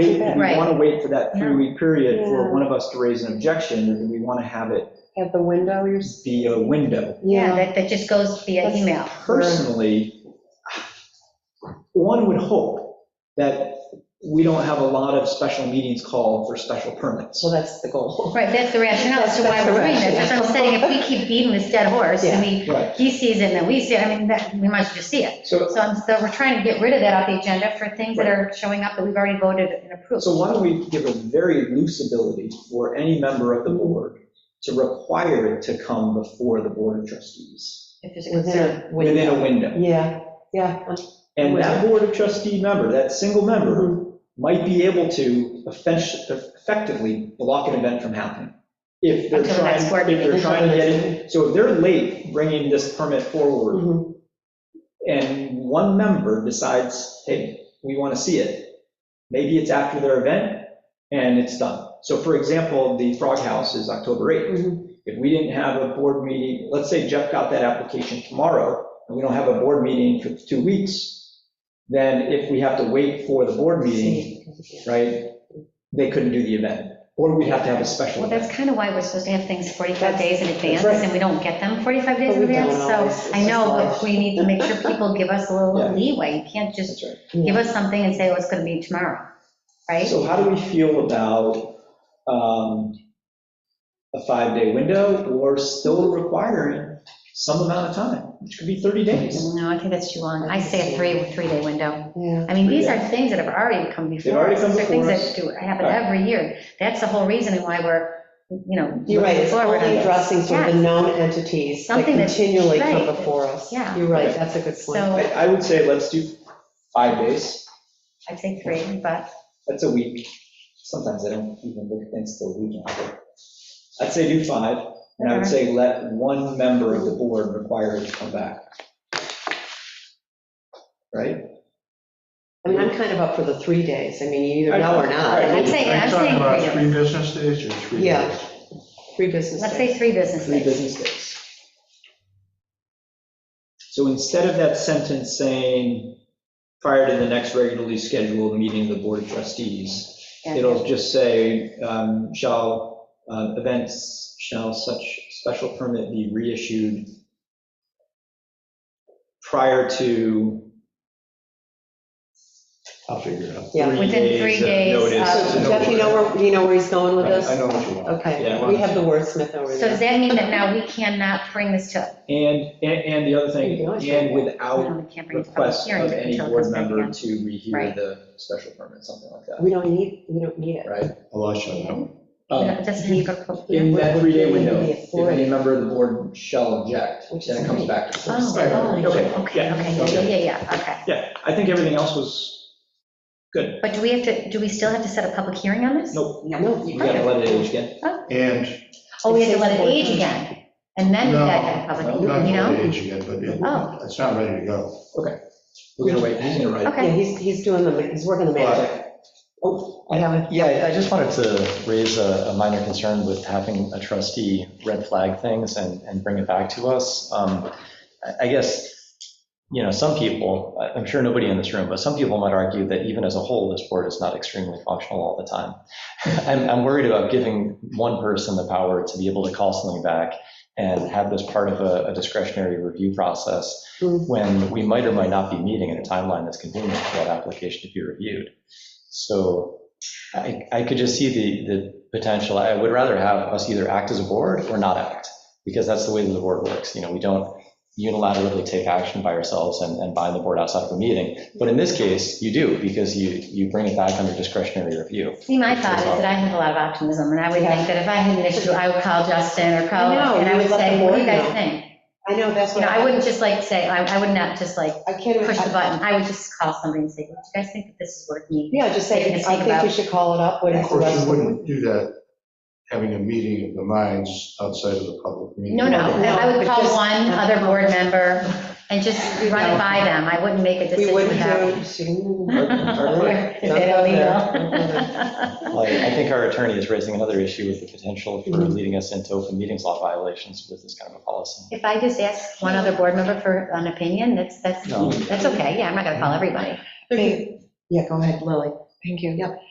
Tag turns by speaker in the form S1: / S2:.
S1: If we
S2: Right.
S1: want to wait for that three-week period for
S3: Yeah.
S1: one of us to raise an objection, or do we want to have it
S3: At the window, you're. s-
S1: be a window?
S2: Yeah, that, that just goes via
S3: That's-
S2: email.
S1: Personally, one would hope that we don't have a lot of special meetings called for special permits.
S3: Well, that's the goal.
S2: Right, that's the rationale, as to why
S3: That's the
S2: we're doing this.
S3: rationale.
S2: That's what I'm saying, if we keep beating this dead horse, and we,
S1: Right.
S2: he sees it and then we see it, I mean, that, we might as well just see it.
S1: So,
S2: So I'm, so we're trying to get rid of that off the agenda for things that are showing up that we've already voted and approved.
S1: so why don't we give a very loose ability for any member of the board to require it to come before the board of trustees
S2: If there's a concern.
S3: Within a
S1: within
S3: window.
S1: a window?
S3: Yeah, yeah.
S1: And that board of trustee member, that single member, might be able to effect- effectively block an event from happening. If they're
S2: Until the
S1: trying,
S2: next
S1: if
S2: board meeting.
S1: they're trying to get it, so if they're late bringing this permit forward
S3: Mhm.
S2: Mm-hmm.
S1: and one member decides, hey, we want to see it, maybe it's after their event and it's done. So for example, the Frog House is October
S2: Mm-hmm.
S1: 8th.
S3: Mhm.
S1: If we didn't have a board meeting, let's say Jeff got that application tomorrow, and we don't have a board meeting for two weeks, then if we have to wait for the board meeting, right, they couldn't do the event, or we'd have to have a special
S2: Well, that's
S1: event.
S2: kind of why we're supposed to have things 45 days in advance,
S1: right.
S2: and we don't get them 45 days
S3: But
S2: in
S3: we don't
S2: advance,
S3: always.
S2: so
S3: It's
S2: I know,
S3: just
S2: but we need to make sure people give us a little
S1: Yeah.
S2: leeway. You can't just
S1: That's right.
S2: give us something and say, oh, it's going to be tomorrow, right?
S1: So how do we feel about um, a five-day window, or still requiring some amount of time, which could be 30 days?
S2: No, I think that's too long. I say a three, three-day window.
S3: Yeah.
S2: I mean, these are things that have already come before.
S1: already come
S2: us. They're
S1: before
S2: Things
S1: us.
S2: that do happen every year. That's the whole reason why we're, you know.
S3: You're right, it's
S2: moving forward on
S3: only
S2: this.
S3: addressing sort of the
S2: Yes.
S3: known entities that
S2: Something that-
S3: continually come
S2: right.
S3: before us.
S2: Yeah.
S3: You're right, that's a good point.
S1: I
S2: So
S1: I would say let's do five days.
S2: I'd say three, but
S1: That's a week. Sometimes I don't even look at things till a week after. I'd say do five, and I would say let one member of the board require it to come back. Right?
S3: I mean, I'm kind of up for the three days. I mean, you either know or not.
S2: I'd say-
S4: Are
S2: I'd
S4: you
S2: say
S4: talking about
S2: three.
S4: three business days or three
S3: Yeah.
S4: days?
S3: Three business
S2: let's
S3: days.
S2: say three business
S1: Three
S2: days.
S1: business days. So instead of that sentence saying, prior to the next regularly scheduled meeting of the Board of Trustees,
S2: Yeah.
S1: it'll just say, um, shall, uh, events, shall such special permit be reissued prior to
S4: I'll figure it out.
S1: three
S3: Yeah.
S2: Within three days
S1: days of notice.
S2: of-
S3: So Jeff, you know where, you know where he's going with
S4: Right, I know
S3: this?
S4: what you want.
S3: Okay,
S1: Yeah.
S3: we have the wordsmith over
S2: So does
S3: there.
S2: that mean that now we cannot bring this to,
S1: And, and and the other
S3: You
S1: thing,
S3: can always
S1: and
S3: say-
S1: without
S2: no, we can't bring it to public
S1: request
S2: hearing
S1: of any
S2: until it
S1: board
S2: comes back
S1: member
S2: again?
S1: to rehear
S2: Right.
S1: the special permit, something like that,
S3: We don't need, we don't need it.
S1: right?
S4: I'll let you know.
S1: Um,
S2: It Doesn't need to go to public hearing.
S1: In that three-day window,
S3: Maybe a
S1: if
S3: four.
S1: any member of the board shall object,
S3: Which
S1: then
S3: is
S1: it comes
S3: great.
S1: back to the
S2: Oh,
S1: first.
S4: Right.
S2: oh,
S1: Okay,
S2: okay,
S1: yeah,
S2: okay, yeah,
S1: okay.
S2: yeah, yeah, okay.
S1: Yeah, I think everything else was good.
S2: But do we have to, do we still have to set a public hearing on this?
S1: Nope,
S3: No,
S1: we
S3: you
S1: gotta
S3: can't.
S1: let it age again.
S4: And
S2: Oh, we have to let it age again, and then we
S4: No.
S2: got that public,
S4: not
S2: Oh, you
S4: the
S2: know?
S4: age again, but
S2: Oh.
S4: it- it's not ready to go.
S1: We're gonna wait, he's gonna write. it.
S3: Yeah,
S2: Okay,
S3: he's, he's doing the, he's working the magic. Oh, I have it.
S5: Yeah, I just wanted to raise a a minor concern with having a trustee red flag things and, and bring it back to us. Um, I I guess, you know, some people, I- I'm sure nobody in this room, but some people might argue that even as a whole, this board is not extremely functional all the time. I'm, I'm worried about giving one person the power to be able to call something back and have this part of a a discretionary review process
S3: Mhm.
S5: when we might or might not be meeting in a timeline that's convenient for that application to be reviewed. So I, I could just see the, the potential, I would rather have us either act as a board or not act, because that's the way that the board works, you know, we don't unilaterally take action by ourselves and, and bind the board outside of a meeting, but in this case, you do, because you, you bring it back under discretionary review.
S2: see, my thought is that I have a lot of optimism, and I would think that if I had an issue, I would call Justin or call,
S3: I know,
S2: and I
S3: you
S2: would
S3: would let
S2: say,
S3: the
S2: what do you
S3: board
S2: guys
S3: know.
S2: think?
S3: I know, that's
S2: You
S3: what.
S2: know, I wouldn't just like say, I, I would not just like
S3: I can't.
S2: push the
S3: I-
S2: button, I would just call somebody and say, what do you guys think that this is worth me?
S3: Yeah, just say,
S2: Taking a
S3: I
S2: seat
S3: think we
S2: about-
S3: should call it up. What
S4: Of
S3: is the
S4: course,
S3: rest
S4: you
S3: of the?
S4: wouldn't do that, having a meeting of the minds outside of the public meeting.
S2: No, no,
S3: No,
S2: I would
S3: but
S2: call
S3: just-
S2: one other board member and just run it by them, I wouldn't make a
S3: We
S2: decision
S3: wouldn't
S2: without.
S3: do. she-
S1: Our-
S2: Is that illegal?
S5: Like, I think our attorney is raising another issue with the potential for leading us into open meetings law violations with this kind of a policy.
S2: If I just ask one other board member for an opinion, that's, that's,
S5: No.
S2: that's okay, yeah, I'm not gonna call everybody.
S3: Thank- Yeah, go ahead, Lily. Thank you. Yep.